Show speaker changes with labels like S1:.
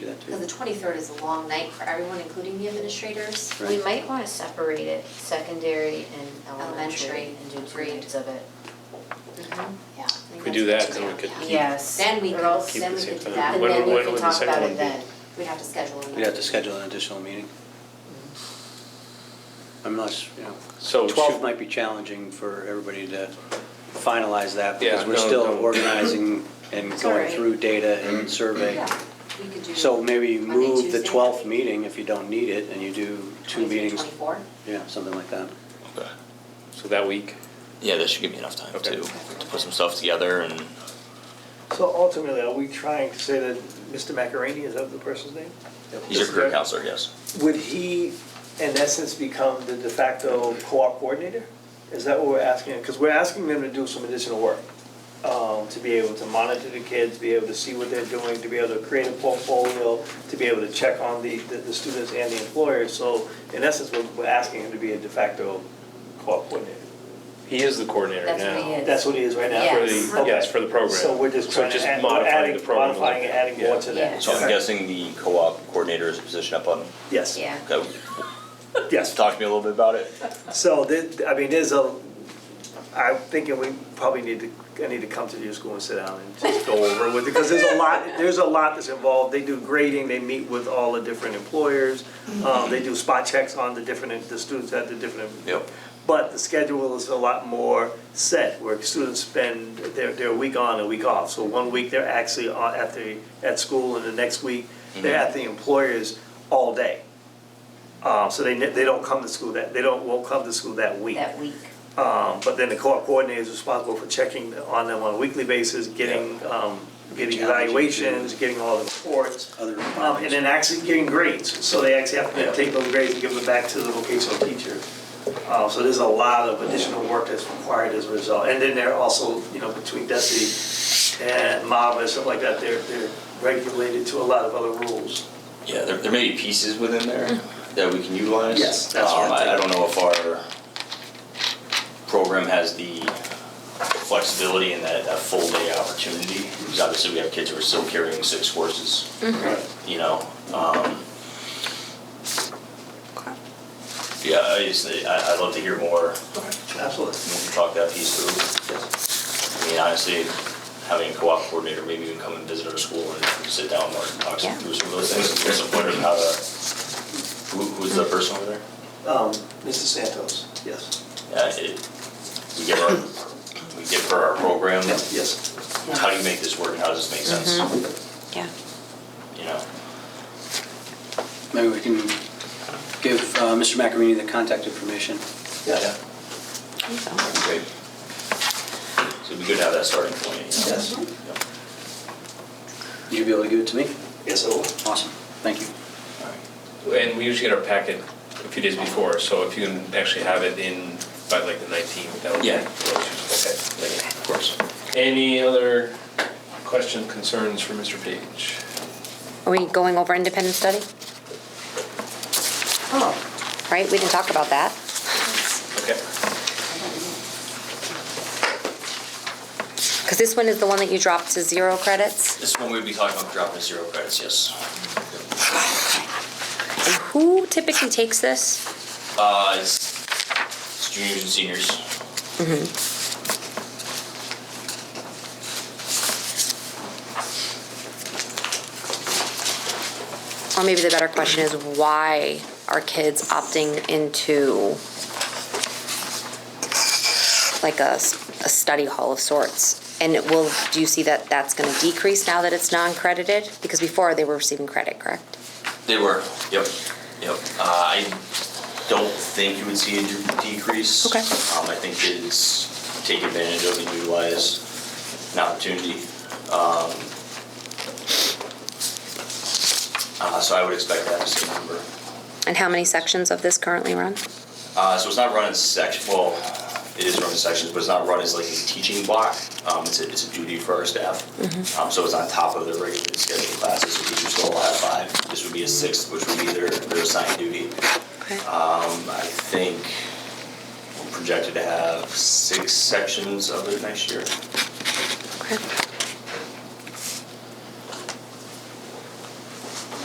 S1: Because the twenty-third is a long night for everyone, including the administrators.
S2: We might wanna separate it, secondary and
S1: Elementary,
S2: elementary, and do two
S1: grade.
S2: nights of it.
S3: Mm-hmm.
S1: Yeah. I think
S4: If we do
S1: that's
S4: that,
S1: a
S4: then
S1: good
S4: we could
S1: idea.
S4: Keep-
S2: Yes.
S1: Then we
S2: or
S1: could-
S2: else-
S4: keep it
S1: then
S4: the
S1: we
S4: same
S1: could do
S4: time.
S1: that.
S2: And
S4: When-
S2: then we
S4: when
S2: can
S4: would the
S2: talk
S4: second
S2: about
S4: one
S2: it
S4: be?
S2: then.
S1: We'd have to schedule another.
S5: We'd have to schedule an additional meeting. Unless, you
S4: So
S5: know,
S4: should-
S5: 12 might be challenging for everybody to finalize that because
S4: Yeah,
S5: we're
S4: no,
S5: still
S4: no.
S5: organizing and
S2: It's all
S5: going
S2: right.
S5: through data and survey.
S1: Yeah, we could do.
S5: So maybe
S1: Monday,
S5: move the
S1: Tuesday,
S5: 12th meeting if you don't need it and you do two
S1: 23,
S5: meetings.
S1: 24.
S5: Yeah, something like that.
S6: Okay.
S4: So that week,
S6: Yeah, that should give me enough time
S4: Okay.
S6: to, to put some stuff together and,
S7: So ultimately, are we trying to say that Mr. Macarini, is that the person's name?
S6: he's your career counselor, yes.
S7: Would he, in essence, become the de facto co-op coordinator? Is that what we're asking? Because we're asking them to do some additional work, um, to be able to monitor the kids, be able to see what they're doing, to be able to create a portfolio, to be able to check on the, the the students and the employers. So in essence, we're, we're asking him to be a de facto co-op coordinator.
S4: he is the coordinator now.
S2: That's what he is.
S7: That's what he is right now?
S4: For
S2: Yes.
S4: the, yes, for the program.
S7: So we're just trying to add, we're
S4: modifying the
S7: adding,
S4: program a little
S7: modifying and
S4: bit.
S7: adding
S4: Yeah.
S7: more to that.
S6: So I'm guessing the co-op coordinator is a position up on,
S7: Yes.
S2: Yeah.
S6: okay,
S7: Yes.
S6: talk to me a little bit about it.
S7: So, there- I mean, there's a, I'm thinking we probably need to, I need to come to your school and sit down and just go over with it, because there's a lot, there's a lot that's involved. They do grading, they meet with all the different employers, um, they do spot checks on the different, the students at the different.
S6: Yep.
S7: But the schedule is a lot more set, where students spend their, their week on and week off. So one week they're actually on, at the, at school, and the next week, they're at the employers all day. Uh, so they, ne- they don't come to school that, they don't, won't come to school that week.
S2: That week.
S7: Um, but then the co-op coordinator is responsible for checking on them on a weekly basis, getting, um, getting
S5: Challenges, yeah.
S7: evaluations, getting all the reports.
S5: Other
S7: Um, and then actually getting grades, so they actually have to take those grades and give them back to the vocational teacher. Uh, so there's a lot of additional work that's required as a result, and then they're also, you know, between DESI and MOB and stuff like that, they're, they're regulated to a lot of other rules.
S6: Yeah, there, there may be pieces within there that we can utilize.
S7: Yes, that's what
S6: Um,
S7: I'm
S6: I, I
S7: thinking.
S6: don't know if our program has the flexibility and that, that full day opportunity. Because obviously we have kids who are still carrying six courses, you know, um. Yeah, I just, I, I'd love to hear more,
S7: Absolutely.
S6: we can talk that piece through. I mean, honestly, having a co-op coordinator, maybe even come and visit our school and sit down and talk
S2: Yeah.
S6: through some of those things. I'm just wondering how to, who, who's the person over there?
S7: Um, Mr. Santos, yes,
S6: Yeah, it, we give our, we give her our program,
S7: yes.
S6: how do you make this work, and how does this make sense?
S3: Yeah.
S6: You know,
S5: Maybe we can give uh, Mr. Macarini the contact information.
S7: Yes,
S6: that'd be great. So it'd be good to have that starting point, you know?
S7: yes,
S6: Yep.
S5: Would you be able to give it to me?
S7: yes, I will.
S5: Awesome, thank you.
S4: And we usually get our packet a few days before, so if you can actually have it in by like the nineteenth, that would be.
S6: Yeah.
S4: Okay, like, of course. Any other question, concerns for Mr. Page?
S3: Are we going over independent study?
S1: Mm-hmm. Oh.
S3: Right, we didn't talk about that.
S4: Okay.
S3: Because this one is the one that you dropped to zero credits.
S6: This one we'd be talking about dropping to zero credits, yes.
S3: And who typically takes this?
S6: Uh, it's it's juniors and seniors.
S3: Or maybe the better question is why are kids opting into like a, s- a study hall of sorts? And it will, do you see that that's going to decrease now that it's non-credited? Because before they were receiving credit, correct?
S6: They were, yep, yep. Uh, I don't think you would see a de- decrease.
S3: Okay.
S6: Um, I think it's take advantage of and utilize an opportunity. Um, uh, so I would expect that to see a number.
S3: And how many sections of this currently run?
S6: Uh, so it's not run in section, well, it is run in sections, but it's not run as like a teaching block. Um, it's a, it's a duty for our staff. Um, so it's on top of their regularly scheduled classes, so teachers still have five. This would be a sixth, which would be their, their assigned duty.
S3: Okay.
S6: Um, I think we're projected to have six sections of it next year.
S3: Okay.